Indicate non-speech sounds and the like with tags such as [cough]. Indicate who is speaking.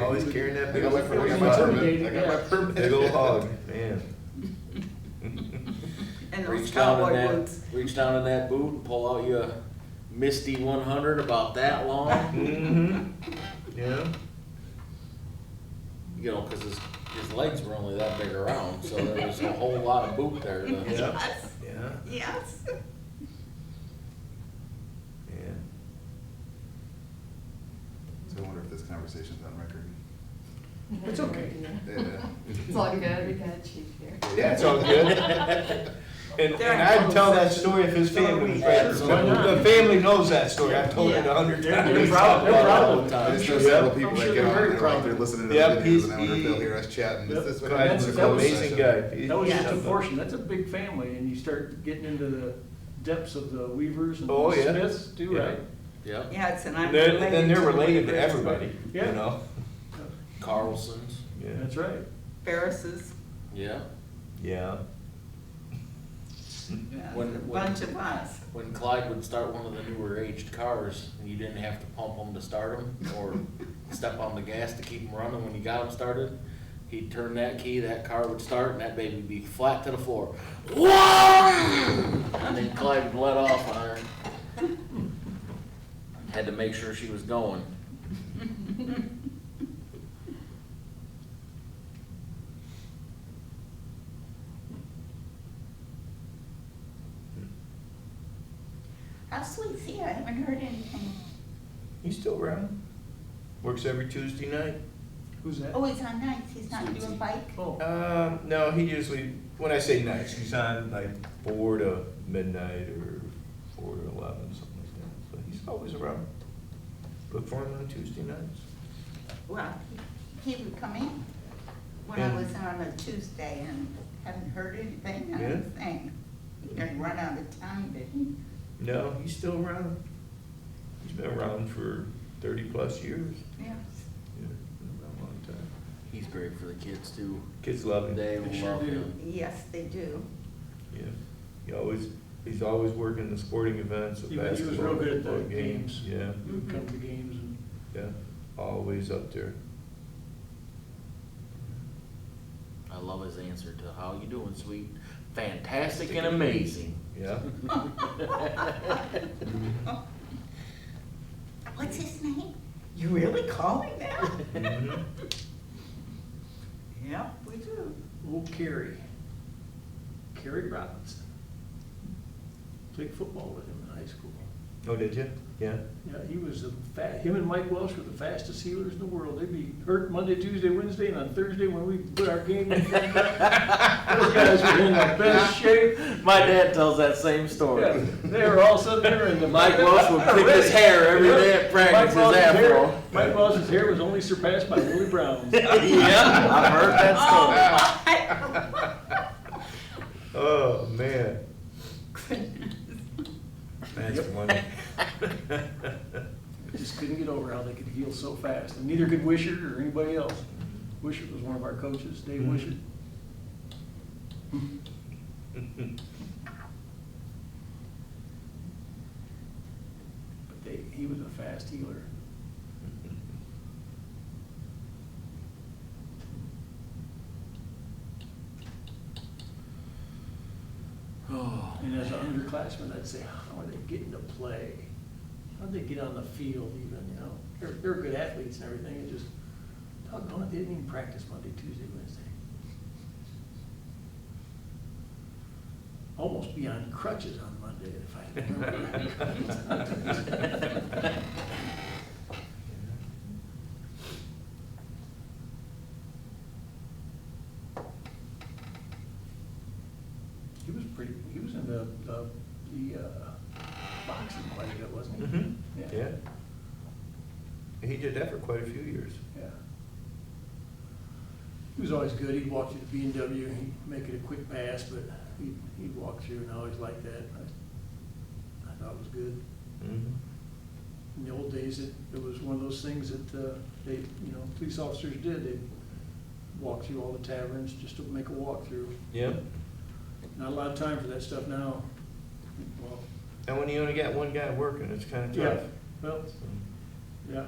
Speaker 1: Always carrying that
Speaker 2: I
Speaker 1: big
Speaker 2: got
Speaker 1: old.
Speaker 2: my permit, I
Speaker 1: fucking
Speaker 2: got my
Speaker 1: hog.
Speaker 2: permit, I got my permit.
Speaker 1: Big old hog, man.
Speaker 3: And those
Speaker 4: Reach down in
Speaker 3: cowboy
Speaker 4: that,
Speaker 3: boots.
Speaker 4: reach down in that boot and pull out your Misty one hundred about that long,
Speaker 1: Mm-hmm. Yeah.
Speaker 4: you know, cause his, his legs were only that big around, so there was a whole lot of boot there to-
Speaker 1: [laughs] Yeah.
Speaker 3: Yes,
Speaker 1: Yeah.
Speaker 3: yes.
Speaker 1: Yeah.
Speaker 2: So I wonder if this conversation's on record.
Speaker 5: It's okay.
Speaker 2: Yeah.
Speaker 5: It's [laughs] all good, we got chief here.
Speaker 2: Yeah, it's all good.
Speaker 1: And,
Speaker 3: They're
Speaker 1: and
Speaker 3: in
Speaker 1: I'd
Speaker 3: close
Speaker 1: tell that
Speaker 3: session.
Speaker 1: story if his
Speaker 3: So are
Speaker 1: family was
Speaker 3: we.
Speaker 1: there.
Speaker 4: Sure, why
Speaker 1: The
Speaker 4: not?
Speaker 1: family knows that story. I've told it a hundred
Speaker 4: Yeah.
Speaker 1: times.
Speaker 4: They're proud- they're proud of it.
Speaker 2: I just know
Speaker 1: Yep.
Speaker 2: several people that
Speaker 6: Uh, sure
Speaker 2: get on
Speaker 6: they're
Speaker 2: there,
Speaker 6: very
Speaker 2: like, they're listening to
Speaker 1: Yep,
Speaker 2: the
Speaker 1: he's-
Speaker 2: videos, and I wonder if they'll heir us chatting, is
Speaker 6: E Yep.
Speaker 2: this what
Speaker 1: God, That's
Speaker 2: happens? in
Speaker 1: an
Speaker 6: That
Speaker 2: closed
Speaker 6: was-
Speaker 1: amazing
Speaker 2: session?
Speaker 1: guy. He-
Speaker 6: That was
Speaker 3: Yeah.
Speaker 6: just a portion, that's a big family, and you start getting into the depths of the Weavers and
Speaker 1: Oh, yeah.
Speaker 6: Smiths too,
Speaker 1: Yeah.
Speaker 6: right?
Speaker 4: [laughs] Yep,
Speaker 3: Yes, and I'm
Speaker 1: Then,
Speaker 3: related.
Speaker 1: then they're
Speaker 3: the
Speaker 1: related to
Speaker 3: Weavers,
Speaker 1: everybody, you
Speaker 6: Yeah.
Speaker 1: know?
Speaker 4: Carlson's,
Speaker 1: Yeah.
Speaker 6: That's right.
Speaker 3: Ferris's,
Speaker 4: yeah.
Speaker 1: Yeah.
Speaker 3: yeah,
Speaker 4: When-
Speaker 3: a
Speaker 4: when-
Speaker 3: bunch of us.
Speaker 4: When Clyde would start one of the newer aged cars, you didn't have to pump them to start them [laughs] or step on the gas to keep them running when you got them started. He'd turn that key, that car would start, and that baby would be flat to the floor. Whoa! And then Clyde would let off on [laughs] her. Had to make sure she was going.
Speaker 3: How's Sweetie? I haven't heard anything.
Speaker 1: He's still around. Works every Tuesday night.
Speaker 6: Who's that?
Speaker 3: Oh, he's on nights, he's not
Speaker 4: Sweetie.
Speaker 3: doing bike?
Speaker 6: Oh,
Speaker 1: Um, no, he usually, when I say nights, he's on like four to midnight or four to eleven, something like that. So he's always around. Look for him on Tuesday nights.
Speaker 3: Well, he he would come in when I
Speaker 1: Yeah.
Speaker 3: was on a Tuesday and haven't heard anything, I
Speaker 1: Yeah.
Speaker 3: was saying, he didn't run out of time, did he?
Speaker 1: No, he's still around. He's been around for thirty plus years.
Speaker 3: Yes.
Speaker 1: Yeah, been around a long time.
Speaker 4: He's great for the kids too.
Speaker 1: Kids love him.
Speaker 4: They
Speaker 6: They sure
Speaker 4: love him.
Speaker 3: Yes, they do.
Speaker 1: Yeah. He always, he's always working the sporting events, the
Speaker 6: He was- he was
Speaker 1: basketball,
Speaker 6: real good at the
Speaker 1: football games.
Speaker 6: games.
Speaker 1: Yeah,
Speaker 6: you would come to games and,
Speaker 1: yeah. Always up there.
Speaker 4: I love his answer to how you doing, sweet? Fantastic and amazing.
Speaker 1: Yeah.
Speaker 4: [laughs]
Speaker 3: [laughs] What's his name? You really call him that?
Speaker 1: Mhm.
Speaker 3: Yep, we do. [laughs]
Speaker 6: oh, Kerry. Kerry Robinson. Played football with him in high school.
Speaker 1: Oh, did you? Yeah.
Speaker 6: Yeah, he was the fa, him and Mike Welsh were the fastest healers in the world. They'd be hurt Monday, Tuesday, Wednesday, and on Thursday when we put our game. in, Those guys were in the best
Speaker 1: [laughs]
Speaker 6: shape.
Speaker 4: My dad tells that same
Speaker 6: Yeah,
Speaker 4: story.
Speaker 6: They were all sitting there in the.
Speaker 4: Mike Welsh would pick his hair every day at practice, his
Speaker 6: Mike Welsh's hair-
Speaker 4: afro.
Speaker 6: Mike Welsh's hair was only surpassed by Willie Brown's.
Speaker 4: [laughs] Yeah, I've heard that story.
Speaker 1: Oh, man. That's funny.
Speaker 6: I Just couldn't get over how they could heal so fast, and neither could Wishart or anybody else. Wishart was one of our coaches, Dave
Speaker 1: Mhm.
Speaker 6: Wishart. But they, he was a fast healer.
Speaker 4: Oh.
Speaker 6: And as an underclassman, I'd say, how are they getting to play? How'd they get on the field even, you know? They're, they're good athletes and everything, it just, doggone it, they didn't even practice Monday, Tuesday, Wednesday. Almost be on crutches on Monday if I remember. [laughs] He was pretty, he was in the, the, the uh, boxing quite a bit, wasn't he?
Speaker 1: Mhm. Yeah. He did that for quite a few years.
Speaker 6: Yeah. He was always good, he'd walk through the B and W, he'd make it a quick pass, but he'd, he'd walk through and I always liked that. I- I thought it was good.
Speaker 1: Mhm.
Speaker 6: In the old days, it, it was one of those things that, uh, they, you know, police officers did, they'd walk through all the taverns just to make a walkthrough.
Speaker 1: Yeah.
Speaker 6: Not a lot of time for that stuff now. Well,
Speaker 1: And when you only got one guy working, it's kind of
Speaker 6: yeah,
Speaker 1: tough.
Speaker 6: well,
Speaker 1: So.
Speaker 6: yeah,